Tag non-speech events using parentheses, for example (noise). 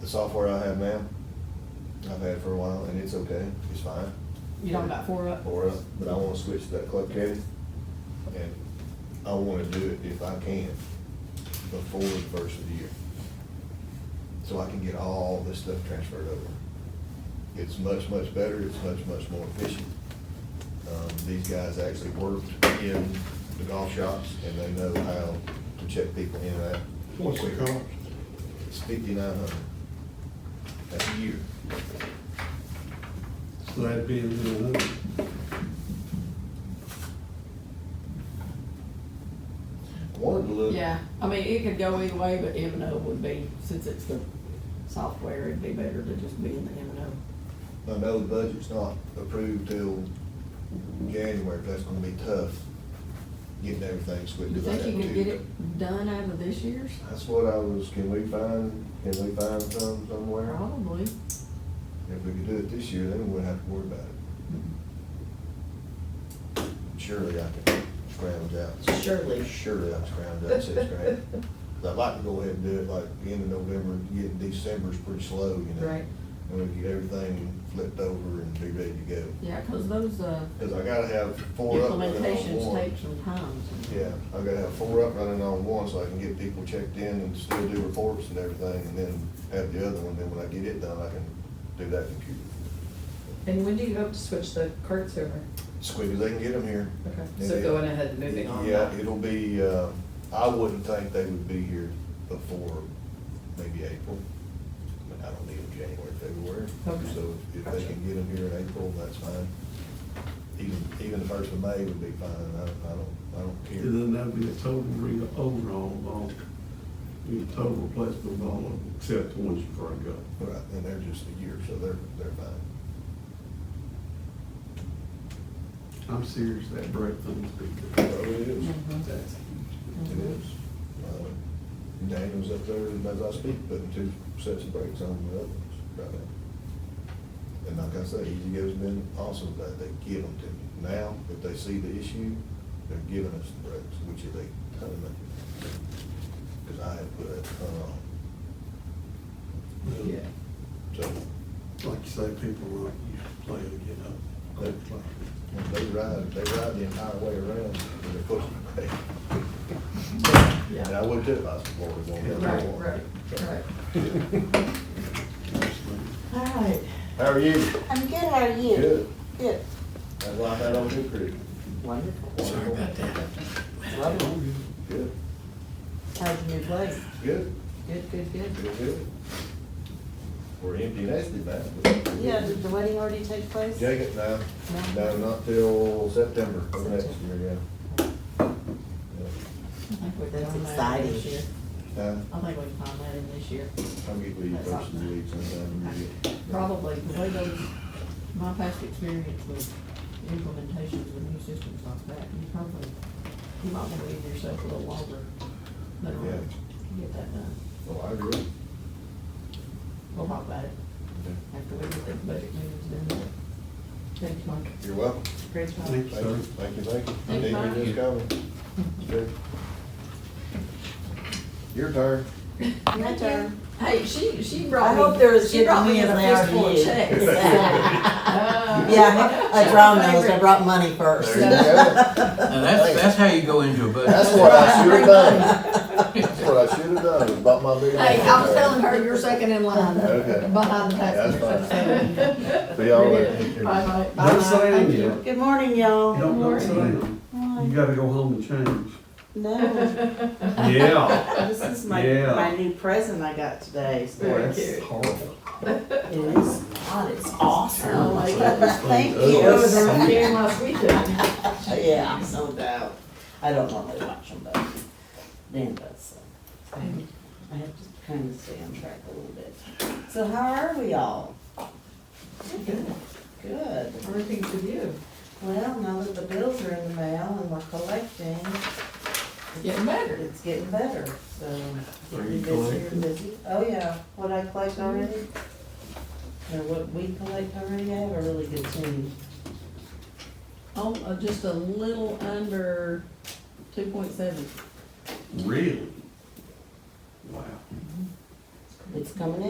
The software I have now, I've had for a while, and it's okay, it's fine. You talking about four up? Or, uh, but I wanna switch to that Club Caddy, and I wanna do it if I can, before the first of the year. So I can get all this stuff transferred over. It's much, much better, it's much, much more efficient. Um, these guys actually worked in the golf shops, and they know how to check people in and out. What's the cost? It's fifty-nine hundred. That's a year. So that'd be another, I Wanted to look. Yeah, I mean, it could go either way, but M and O would be, since it's the software, it'd be better to just be in the M and O. I know the budget's not approved till January, but that's gonna be tough, getting everything switched. You think you can get to- it done out of this year's? That's what I was, can we find, can we find some somewhere? Probably. If we could do it this year, then we wouldn't have to worry about it. Surely I can scrounge out. Surely. Surely I can scrounge out six grand. (laughs) 'Cause I'd like to go ahead and do it like the end of November, get December's pretty slow, you know? Right. And we get everything flipped over and be ready to go. Yeah, because those, uh, Cause I gotta have four up running on implementations one. take some time. Yeah, I gotta have four up running on one so I can get people checked in and still do reports and everything and then have the other one, then when I get it done, I can do that computer. And when do you hope to switch the carts over? As quick as they can get them here. Okay, so going ahead and moving on. Yeah, it'll be, uh, I wouldn't think they would be here before maybe April. But I don't need them January, February. Okay. So if they Gotcha. can get them here in April, that's fine. Even, even the first of May would be fine. I, I don't, I don't care. and then that'd be a total re, overhaul of all, be a total replacement of all of them, except the ones you break up. Right, and they're just a year, so they're, they're fine. I'm serious, that break thing's big. So it is. Mhm. That's It is. Uh, Daniel's up there, as I speak, putting two sets of brakes on the others right now. And like I say, Easy Go's been awesome, that they give them to me. Now, if they see the issue, they're giving us the brakes, which is a ton of money. Cause I have put a ton on, good. Yeah. so Like you say, people like you play to get up. They play. when they ride, they ride the entire way around, and they're pushing the brake. And I would too, if I was the board, won't have Right, one. right, right. Absolutely. All right, How are you? I'm good, how are you? Good. Good. That's why I had on New Creek. Wonderful. Sorry about that. Lovely. Good, How's your new place? good, Good, good, good. good, good. We're empty nested now. but- Yeah, did the wedding already take place? Jacob, no, No. no, not till September of next year, yeah. I think we can That's find that in exciting. this year. Yeah. I think we can find that in this year. I'll get with you That's first of the awesome. week sometime. and get- Probably, the way those, my past experience with implementations with new systems like that, you probably, you might want to leave yourself a little longer than a month to get that done. Well, I agree. We'll talk about it after we get the budget meetings done. Thanks, Mark. You're welcome. Great job. Thank Thank you, Sir. thank you, thank you. I Thank need you, to Mike. just go. Good. Your turn. My turn. Hey, she, she I hope there was she good brought me news in a there for fistful of you. checks. (laughs) Uh, Exactly. Yeah, I draw those, I brought money first. There you go. Now, that's, that's how you go into a budget. That's what I should have done. That's what I should have done, is bought my big. Hey, I was telling her you're second in line Okay. behind the That's tax. fine. See y'all later. Bye, bye. Don't say Thank them you. yet. Good morning, y'all. Don't, don't say them. You Hi. gotta go home and change. No, (laughs) Yeah. this is my, Yeah. my new present I got today. Very so That's cute. horrible. It is, God, it's awesome. Oh, my goodness. (laughs) Thank It was you. around here last weekend. Yeah, no doubt. I don't normally watch them, but Dan does, so. I have- I have to kind of stay on track a little bit. So how are we all? Good. Everything's with you. Well, now that the bills are in the mail and we're collecting, Getting better. it's getting better, so. Are you busy, collecting? busy. Oh, yeah, what I collect already? Or what we collect already, I have a really good team. Oh, uh, just a little under two point seven. Really? Wow. It's coming in.